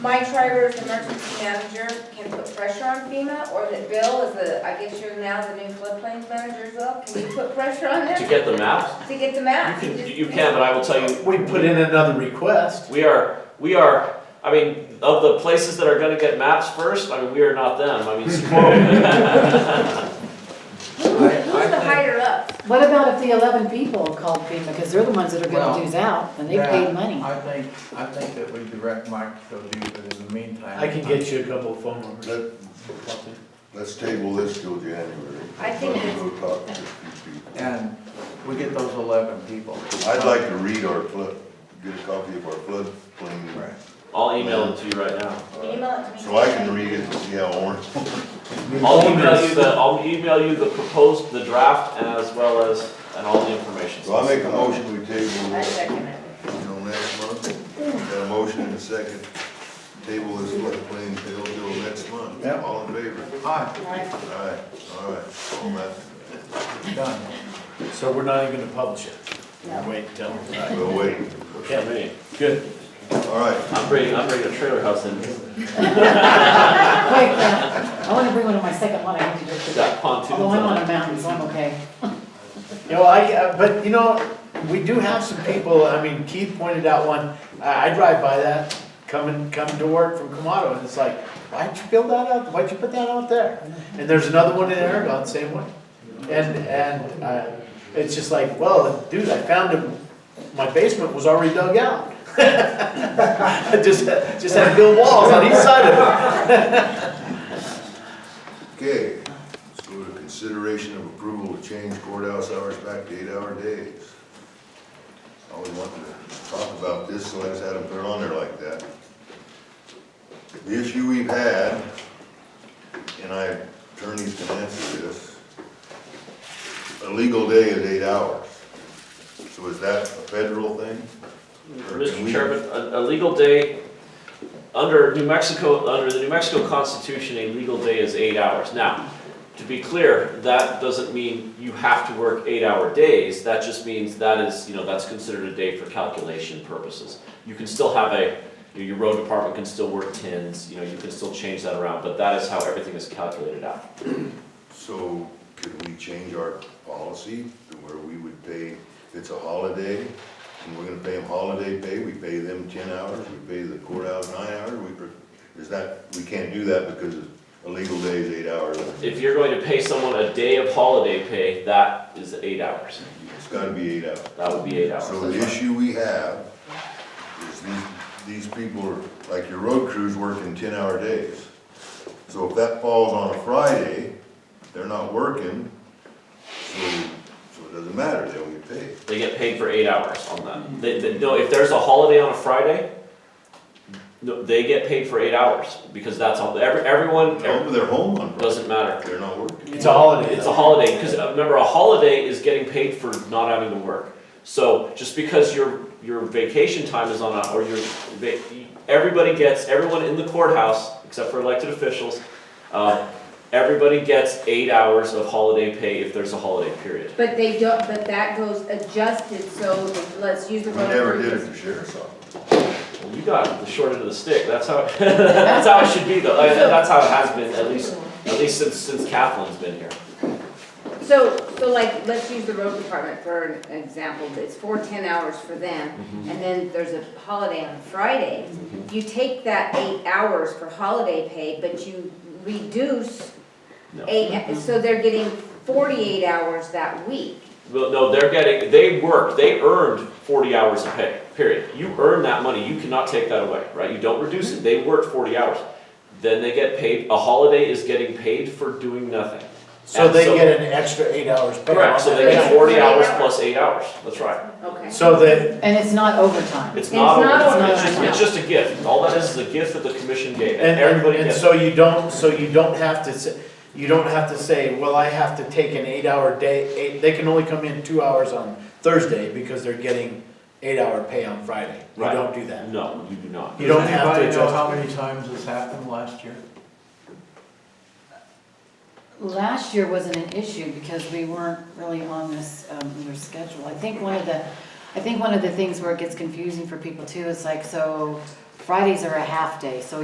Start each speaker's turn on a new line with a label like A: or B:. A: My charter as emergency manager can put pressure on FEMA, or that Bill is the, I guess you're now the new floodplains manager, Bill, can you put pressure on
B: To
A: them
B: get the maps?
A: to get the
B: You
A: map?
B: can, you can, but I will tell you,
C: We put in another request.
B: We are, we are, I mean, of the places that are gonna get maps first, I mean, we are not them, I mean,
A: Who-
B: Sequoia.
A: Who's the higher up?
D: What about if the eleven people called FEMA, because they're the ones that are
E: Well,
D: gonna do out, and they paid
E: Yeah,
D: money?
E: I think, I think that we direct Mike to go do it, but in the meantime.
C: I can get you a couple of phone numbers. or something.
F: Let's table this till January.
A: I think
F: Let's
A: it's-
F: go talk to these people.
E: And we get those eleven people.
F: I'd like to read our flood, get a copy of our floodplain,
E: Right.
B: I'll email it to you right now.
A: Email it to me.
F: so I can read it and see how orange.
B: I'll email you the, I'll email you the proposed, the draft, as well as, and all the information.
F: So I make a motion, we table
A: I
F: this
A: second it.
F: until next month. Got a motion and a second. Table this floodplain till, till next month.
E: Yeah.
F: All in favor?
E: Hi,
F: All right, all right, all that.
E: done.
C: So we're not even gonna publish it. We'll Wait till, right.
F: We'll wait.
C: Okay,
B: Me,
C: good.
F: All right,
B: I'm bringing, I'm bringing a trailer house in,
D: Wait, uh, I wanna bring one of my second one, I need to do it today.
B: got pontoons
D: Although I'm
B: on
D: Oh, on
B: it.
D: a mountain, so I'm okay.
C: You know, I, uh, but you know, we do have some people, I mean, Keith pointed out one, I, I drive by that, coming, coming to work from Kamado, and it's like, why'd you build that out, why'd you put that out there? And there's another one in Aragon, same way. And, and, uh, it's just like, well, dude, I found him, my basement was already dug out. I just, just had to build walls on each side of it.
F: okay. Let's go to consideration of approval to change courthouse hours back to eight-hour days. I always wanted to talk about this, so I just had them put it on there like that. The issue we've had, and I, attorneys can answer this, a legal day is eight hours. So is that a federal thing? Or can
B: Mr.
F: we-
B: Chairman, a, a legal day, under New Mexico, under the New Mexico Constitution, a legal day is eight hours. Now, to be clear, that doesn't mean you have to work eight-hour days, that just means that is, you know, that's considered a day for calculation purposes. You can still have a, your, your road department can still work tens, you know, you can still change that around, but that is how everything is calculated out.
F: So could we change our policy to where we would pay, if it's a holiday, and we're gonna pay them holiday pay, we pay them ten hours, we pay the courthouse nine hours, we, is that, we can't do that because a legal day is eight hours.
B: If you're going to pay someone a day of holiday pay, that is eight hours,
F: It's gotta be eight hours.
B: that would be eight hours.
F: So the
B: That's right.
F: issue we have is these, these people are, like your road crews working ten-hour days. So if that falls on a Friday, they're not working, so, so it doesn't matter, they don't get paid.
B: They get paid for eight hours on that. They, they, no, if there's a holiday on a Friday, no, they get paid for eight hours, because that's all, every, everyone,
F: No, but they're home on Friday,
B: doesn't matter.
F: they're not working.
C: It's a holiday.
B: It's a holiday, because remember, a holiday is getting paid for not having to work. So just because your, your vacation time is on, a- or your, va- everybody gets, everyone in the courthouse, except for elected officials, uh, everybody gets eight hours of holiday pay if there's a holiday period.
A: But they don't, but that goes adjusted, so let's use the.
F: We never did it in the sheriff's office.
B: Well, you got the short end of the stick. That's how that's how it should be, though. Like, that's how it has been, at least at least since since Kathleen's been here.
A: So, so like, let's use the road department for an example, it's four ten hours for them, and then there's a holiday on Friday. You take that eight hours for holiday pay, but you reduce
B: No.
A: eight, so they're getting forty-eight hours that week.
B: Well, no, they're getting they worked. They earned forty hours of pay. Period. You earn that money. You cannot take that away, right? You don't reduce it. They worked forty hours. Then they get paid. A holiday is getting paid for doing nothing.
C: So
B: And
C: they get an extra eight hours. pay
B: correct.
C: off
B: So they
C: that.
B: get forty hours plus eight hours. That's right.
A: Okay.
C: So that,
D: And it's not overtime.
B: It's not.
A: It's not
B: a-
D: overtime.
B: It's just, it's just a gift. All that is is a gift that the commission gave.
C: and, and,
B: everybody
C: and
B: gets.
C: so you don't, so you don't have to say, you don't have to say, well, I have to take an eight-hour day, eight, they can only come in two hours on Thursday because they're getting eight-hour pay on Friday. You
B: Right.
C: don't do that.
B: no, you do not.
C: You don't have to
E: Anybody know
C: adjust.
E: how many times this happened last year?
D: Last year wasn't an issue because we weren't really on this, um, your schedule. I think one of the, I think one of the things where it gets confusing for people too is like, so Fri- Fridays are a half day, so